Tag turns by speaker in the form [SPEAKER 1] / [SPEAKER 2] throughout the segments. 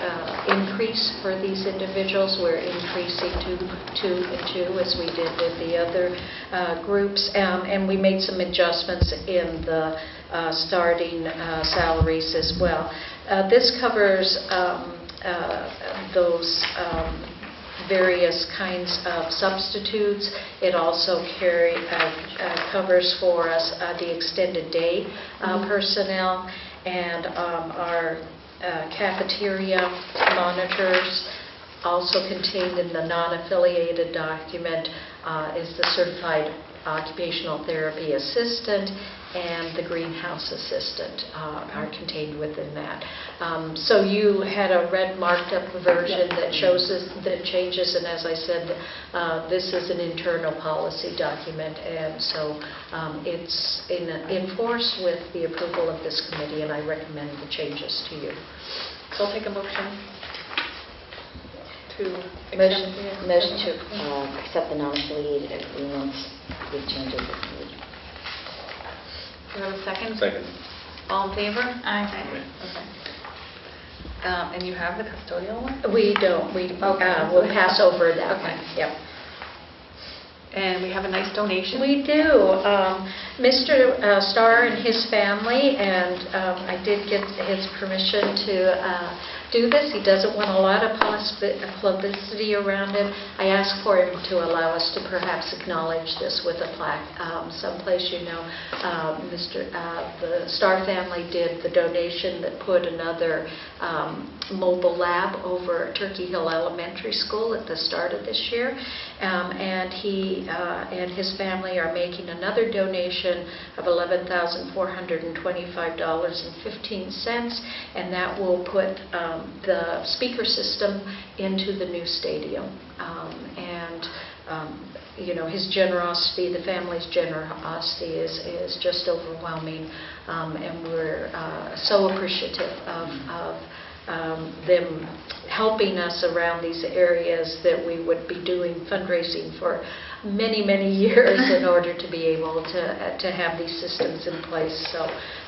[SPEAKER 1] uh, increase for these individuals. We're increasing to two and two, as we did with the other uh, groups. Um, And we made some adjustments in the uh, starting uh, salaries as well. Uh, This covers um, uh, those um, various kinds of substitutes. It also carry, uh, uh, covers for us uh, the extended day uh, personnel and um, our uh, cafeteria monitors. Also contained in the non-affiliated document uh, is the certified occupational therapy assistant and the greenhouse assistant uh, are contained within that. Um, So you had a red marked up version that shows us the changes, and as I said, uh, this is an internal policy document, and so um, it's in in force with the approval of this committee, and I recommend the changes to you.
[SPEAKER 2] So I'll take a motion to
[SPEAKER 3] Motion
[SPEAKER 2] accept.
[SPEAKER 3] motion to uh, accept the non-affiliated agreements with changes as needed.
[SPEAKER 2] Do you have a second?
[SPEAKER 4] Second.
[SPEAKER 2] All in favor? Aye.
[SPEAKER 4] Aye.
[SPEAKER 2] Okay. Um, And you have the custodial one?
[SPEAKER 1] We don't, we, uh, we'll pass over that one.
[SPEAKER 2] Okay.
[SPEAKER 1] Yep.
[SPEAKER 2] And we have a nice donation?
[SPEAKER 1] We do. Um, Mr. uh, Starr and his family, and um, I did get his permission to uh, do this. He doesn't want a lot of pos- publicity around him. I asked for him to allow us to perhaps acknowledge this with a plaque um, someplace, you know. um, Mr., uh, the Starr family did the donation that put another um, mobile lab over at Turkey Hill Elementary School at the start of this year. Um, And he uh, and his family are making another donation of $11,425.15, and that will put um, the speaker system into the new stadium. Um, And, um, you know, his generosity, the family's generosity is is just overwhelming, Um, and we're uh, so appreciative of of um, them helping us around these areas that we would be doing fundraising for many, many years in order to be able to, uh, to have these systems in place. So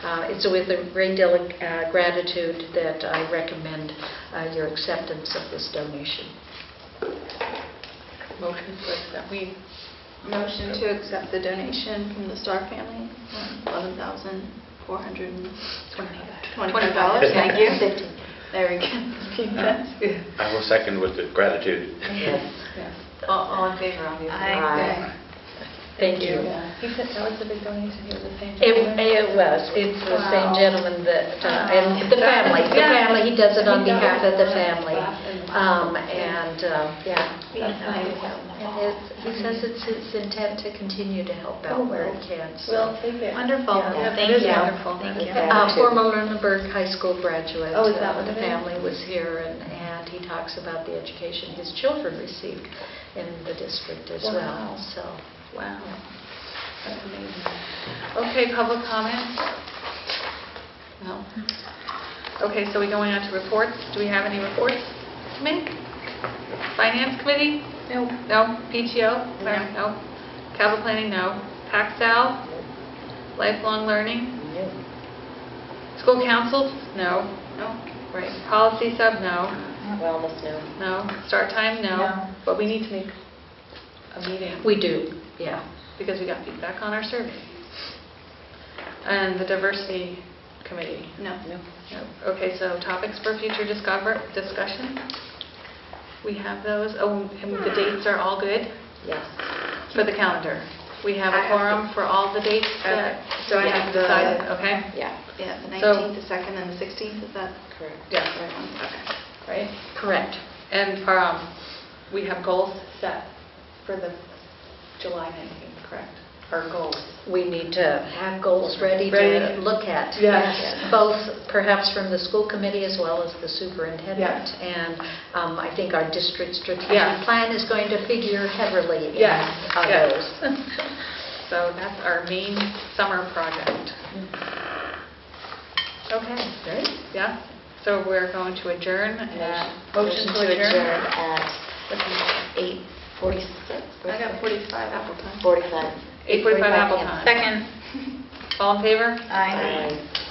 [SPEAKER 1] uh, it's with a great deal of uh, gratitude that I recommend uh, your acceptance of this donation.
[SPEAKER 2] Motion to accept, we... Motion to accept the donation from the Star family, $11,425. Thank you.
[SPEAKER 3] Fifteen.
[SPEAKER 2] There we go. Yes.
[SPEAKER 4] I will second with the gratitude.
[SPEAKER 3] Yes.
[SPEAKER 2] All all in favor, obviously.
[SPEAKER 3] Aye.
[SPEAKER 1] Thank you.
[SPEAKER 2] He said that was a big donation, it was the same.
[SPEAKER 1] It, it was, it's the same
[SPEAKER 2] Wow.
[SPEAKER 1] gentleman that, uh, and the family, the
[SPEAKER 2] Yeah.
[SPEAKER 1] family, he does it on
[SPEAKER 2] He does.
[SPEAKER 1] behalf of the family. Um, And, um, yeah.
[SPEAKER 2] That's nice.
[SPEAKER 1] And it's- He says it's his intent to continue to help out where he can. so.
[SPEAKER 2] Wonderful,
[SPEAKER 3] Yeah.
[SPEAKER 2] thank you.
[SPEAKER 1] Yeah.
[SPEAKER 2] Wonderful.
[SPEAKER 3] Thank
[SPEAKER 2] Thank
[SPEAKER 3] you.
[SPEAKER 2] you.
[SPEAKER 1] Uh, Former Lunenburg High School graduate.
[SPEAKER 2] Oh, is that
[SPEAKER 1] uh,
[SPEAKER 2] what it
[SPEAKER 1] The
[SPEAKER 2] is?
[SPEAKER 1] family was here, and and he talks about the education his children received in the district as well,
[SPEAKER 2] Wow.
[SPEAKER 1] so.
[SPEAKER 2] Wow. That's amazing. Okay, public comment? No. Okay, so we're going on to reports. Do we have any reports to make? Finance committee? No. No? PTO? Sorry, No. Capital planning, no. Paxal? Lifelong learning? School council? No. No. Right. Policy sub, no.
[SPEAKER 3] Wellness, no.
[SPEAKER 2] No. Start time, no. But we need to make a meeting
[SPEAKER 1] We do, yeah.
[SPEAKER 2] because we got feedback on our survey. And the diversity committee? No.
[SPEAKER 3] No.
[SPEAKER 2] Okay, so topics for future discover, discussion? We have those, oh, and the dates are all good
[SPEAKER 3] Yes.
[SPEAKER 2] for the calendar? We have
[SPEAKER 5] I
[SPEAKER 2] a
[SPEAKER 5] have
[SPEAKER 2] quorum for all the dates that
[SPEAKER 5] Okay, so I
[SPEAKER 2] we
[SPEAKER 5] have the-
[SPEAKER 2] decided, okay?
[SPEAKER 3] Yeah,
[SPEAKER 5] Yeah, the
[SPEAKER 2] So-
[SPEAKER 5] 19th, the 2nd, and the 16th, is that
[SPEAKER 3] correct.
[SPEAKER 2] Yeah.
[SPEAKER 5] the right one? Okay.
[SPEAKER 2] Right?
[SPEAKER 1] Correct.
[SPEAKER 2] And um, we have goals set for the July 19th, correct? Our goals.
[SPEAKER 1] We need to have goals ready to
[SPEAKER 2] Ready.
[SPEAKER 1] look at.
[SPEAKER 2] Yes.
[SPEAKER 1] Both perhaps from the school committee as well as the superintendent. And um, I think our district strategic
[SPEAKER 2] Yeah.
[SPEAKER 1] plan is going to figure heavily in
[SPEAKER 2] Yes,
[SPEAKER 1] on
[SPEAKER 2] yes.
[SPEAKER 1] those.
[SPEAKER 2] So that's our main summer project. Okay,
[SPEAKER 1] Right?
[SPEAKER 2] yeah, so we're going to adjourn. at-
[SPEAKER 3] Motion to adjourn at
[SPEAKER 2] What time
[SPEAKER 3] 8:46?
[SPEAKER 5] I got 45 Apple time.
[SPEAKER 3] 45.
[SPEAKER 2] is it? 8:45 Apple time.
[SPEAKER 3] Second.
[SPEAKER 2] All in favor?
[SPEAKER 3] Aye.